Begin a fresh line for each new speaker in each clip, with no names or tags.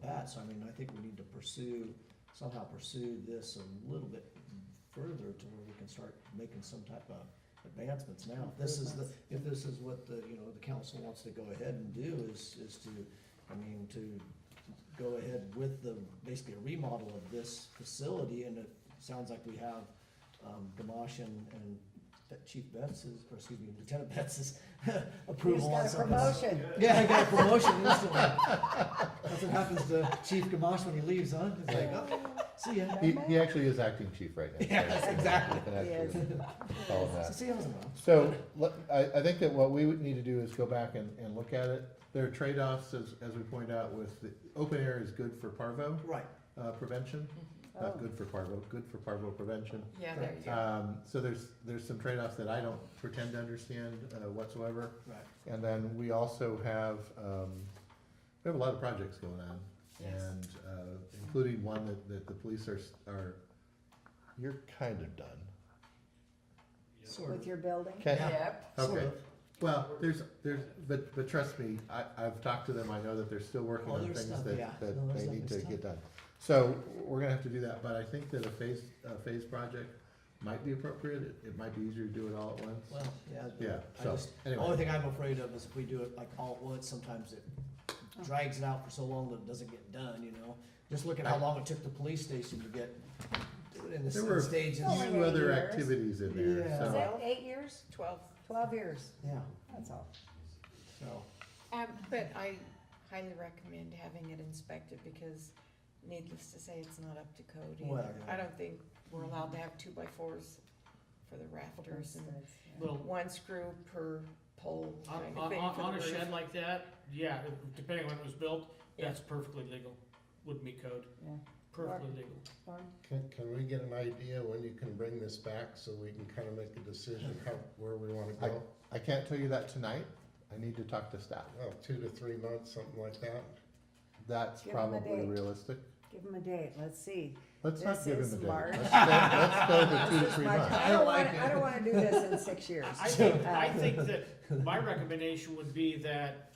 that, so I mean, I think we need to pursue, somehow pursue this a little bit further to where we can start making some type of advancements now. If this is the, if this is what the, you know, the council wants to go ahead and do is, is to, I mean, to go ahead with the, basically a remodel of this facility, and it sounds like we have, um, Gamache and, and Chief Betts's, or excuse me, Lieutenant Betts's
He's
approval on
got a
some of this.
promotion.
Yeah, I got a promotion instantly. That's what happens to Chief Gamache when he leaves, huh? It's like, oh, see ya.
He, he actually is acting chief right now.
Yes, exactly.
You can actually call him that.
See how's it going?
So, let- I, I think that what we would need to do is go back and, and look at it. There are trade-offs, as, as we point out, with, the open air is good for parvo,
Right,
uh, prevention.
Oh.
Not good for parvo, good for parvo prevention.
Yeah, there you
uh,
go.
Um, so there's, there's some trade-offs that I don't pretend to understand uh, whatsoever.
right.
And then we also have, um, we have a lot of projects going on.
Yes.
And, uh, including one that, that the police are, s- are, you're kind of done.
Sort
Oh. With
of.
your building?
Okay?
Yep,
Sort
Okay.
of.
Well, there's, there's, but, but trust me, I, I've talked to them, I know that they're still working
Oh,
on
there's
things
stuff, yeah.
that,
No,
that
there's
they
stuff,
need to
there's
get done. So, we're gonna have to do that, but I think that a phase, a phase project might be appropriate, it, it might be easier to do it all at once.
Well, yeah. but
Yeah,
I
so,
just- The
anyway.
only thing I'm afraid of is if we do it like all at once, sometimes it drags it out for so long that it doesn't get done, you know? Just look at how long it took the police station to get in the
There were
s- stages.
Only
Few other
years.
activities in there,
Yeah.
so.
Is that eight years?
twelve.
Twelve years,
Yeah,
that's all.
so,
Um, but I highly recommend having it inspected because needless to say, it's not up to code
Well,
either.
yeah.
I don't think we're allowed to have two by fours for the rafters and
Well,
one screw per pole
on,
kind of
on,
thing
on
for
on
the
a
roof.
shed like that, yeah, depending on when it was built,
Yeah.
that's perfectly legal, would meet code,
Yeah.
perfectly legal.
Lauren?
Can, can we get an idea when you can bring this back so we can kind of make a decision how, where we want to go?
I can't tell you that tonight. I need to talk to staff.
Oh, two to three months, something like that?
That's
Give 'em a
probably
date.
realistic.
Give him a date, let's see.
Let's not
This
give him a
is
date.
March.
Let's go, let's go to two, to three
My-
months.
I don't wanna, I don't wanna do this in six years.
I think,
Uh,
I think that my recommendation would be that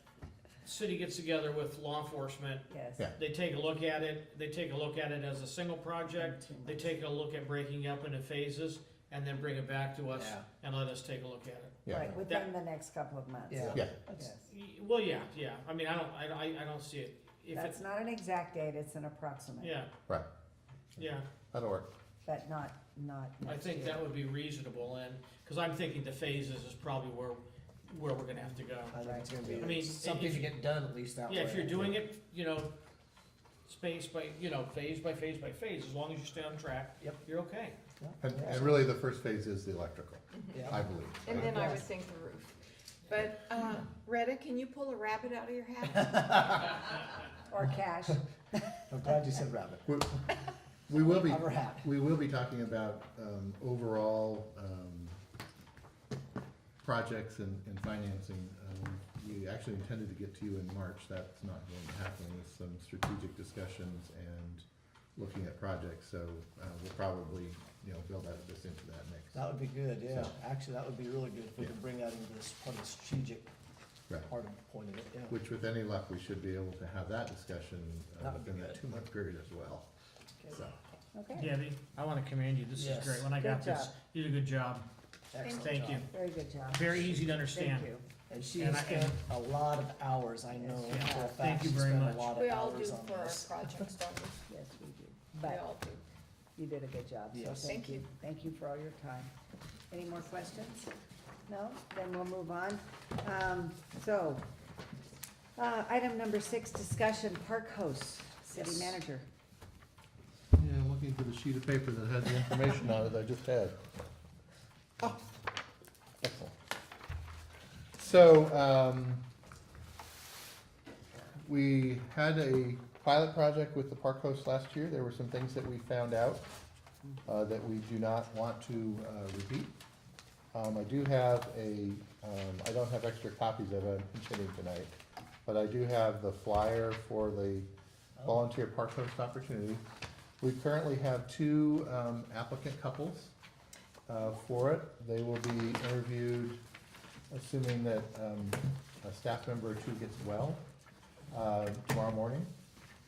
city gets together with law enforcement,
Yes.
Yeah.
they take a look at it, they take a look at it as a single project, they take a look at breaking up into phases, and then bring it back to us
Yeah.
and let us take a look at it.
Yeah,
Right, within the next couple of months.
yeah.
yeah,
That's-
Yes.
Y- Well, yeah, yeah, I mean, I don't, I, I- I don't see it, if
That's
it's,
not an exact date, it's an approximate,
yeah.
Right.
Yeah.
that'll work.
but not, not
I
next
think
year.
that would be reasonable, and, because I'm thinking the phases is probably where, where we're gonna have to go.
I think it's
I
gonna be
mean,
something
if-
to get done at least that way.
Yeah, if you're
I
doing
think.
it, you know, space by, you know, phase by phase by phase, as long as you stay on track,
Yep.
you're okay.
And,
Yeah.
and really, the first phase is the electrical,
Mm-hmm. Yeah.
I believe.
And then I would think the roof. But, uh, Rheta, can you pull a rabbit out of your hat?
Or cash,
I'm glad you said rabbit.
We will be,
Cover hat.
we will be talking about, um, overall, um, projects and, and financing. Um, We actually intended to get to you in March, that's not going to happen, with some strategic discussions and looking at projects, so, uh, we'll probably, you know, build that, this into that next.
That would be good, yeah.
So-
Actually, that would be really good if we
Yeah.
could bring that into this part of the strategic
Right.
part of the point of it, yeah.
Which with any luck, we should be able to have that discussion uh,
That would be
within that
good.
two-month period as well. So,
okay,
Debbie, I wanna commend you, this
Yes.
is great, when I got
Good
this,
job.
you did a good job,
Excellent
thank you,
job.
very good job.
very easy
Thank
to understand.
you.
And she
And
has
I- and-
spent a lot of hours, I know
Yes, she
for a
has.
fact,
Thank you
she
very
spent a
much.
lot
We
of
all do
hours on
for our
this.
projects, don't we?
Yes, we do.
We
But
all do.
you did a good job, so
Yes.
thank
Thank
you.
you.
Thank you for all your time. Any more questions? No? Then we'll move on. Um, so, uh, item number six, discussion, park host, city
Yes.
manager.
yeah, I'm looking for the sheet of paper that had the information on it I just had. Oh, Excellent. So, um, we had a pilot project with the park host last year. There were some things that we found out uh, that we do not want to uh, repeat. Um, I do have a, um, I don't have extra copies of it, I'm continuing tonight, but I do have the flyer for the volunteer park host opportunity. We currently have two um, applicant couples uh, for it. They will be interviewed, assuming that um, a staff member or two gets well, uh, tomorrow morning.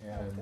And